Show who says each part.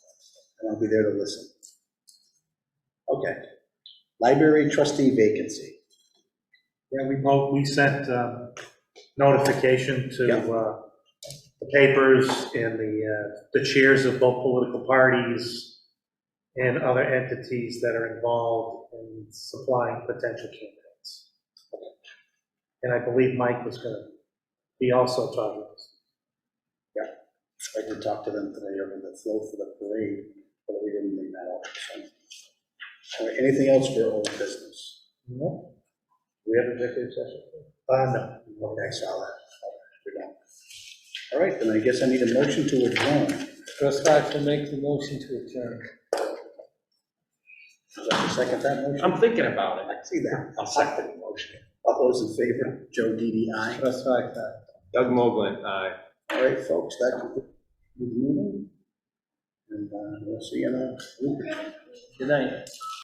Speaker 1: and I'll be there to listen. Okay. Library trustee vacancy.
Speaker 2: Yeah, we both, we sent um, notification to
Speaker 1: Yeah.
Speaker 2: uh, the papers and the, uh, the chairs of both political parties and other entities that are involved in supplying potential candidates. And I believe Mike was going to be also talking.
Speaker 1: I did talk to them today over the flow for the parade, but we didn't bring that up. so. All right, Anything else for old business?
Speaker 2: No?
Speaker 1: We have executive session?
Speaker 2: Uh, no.
Speaker 1: Okay, solid. We're done. All right, then I guess I need a motion to adjourn.
Speaker 3: Russ Fox will make the motion to adjourn.
Speaker 1: Is that the second time motion?
Speaker 4: I'm thinking about it.
Speaker 1: I see that.
Speaker 4: I'll second the motion.
Speaker 1: All those in favor? Joe DDI.
Speaker 3: Russ Fox, aye.
Speaker 4: Doug Mogul, uh, aye.
Speaker 1: All right, folks, that concludes the meeting. And uh, we'll see you in a week.
Speaker 3: Good night.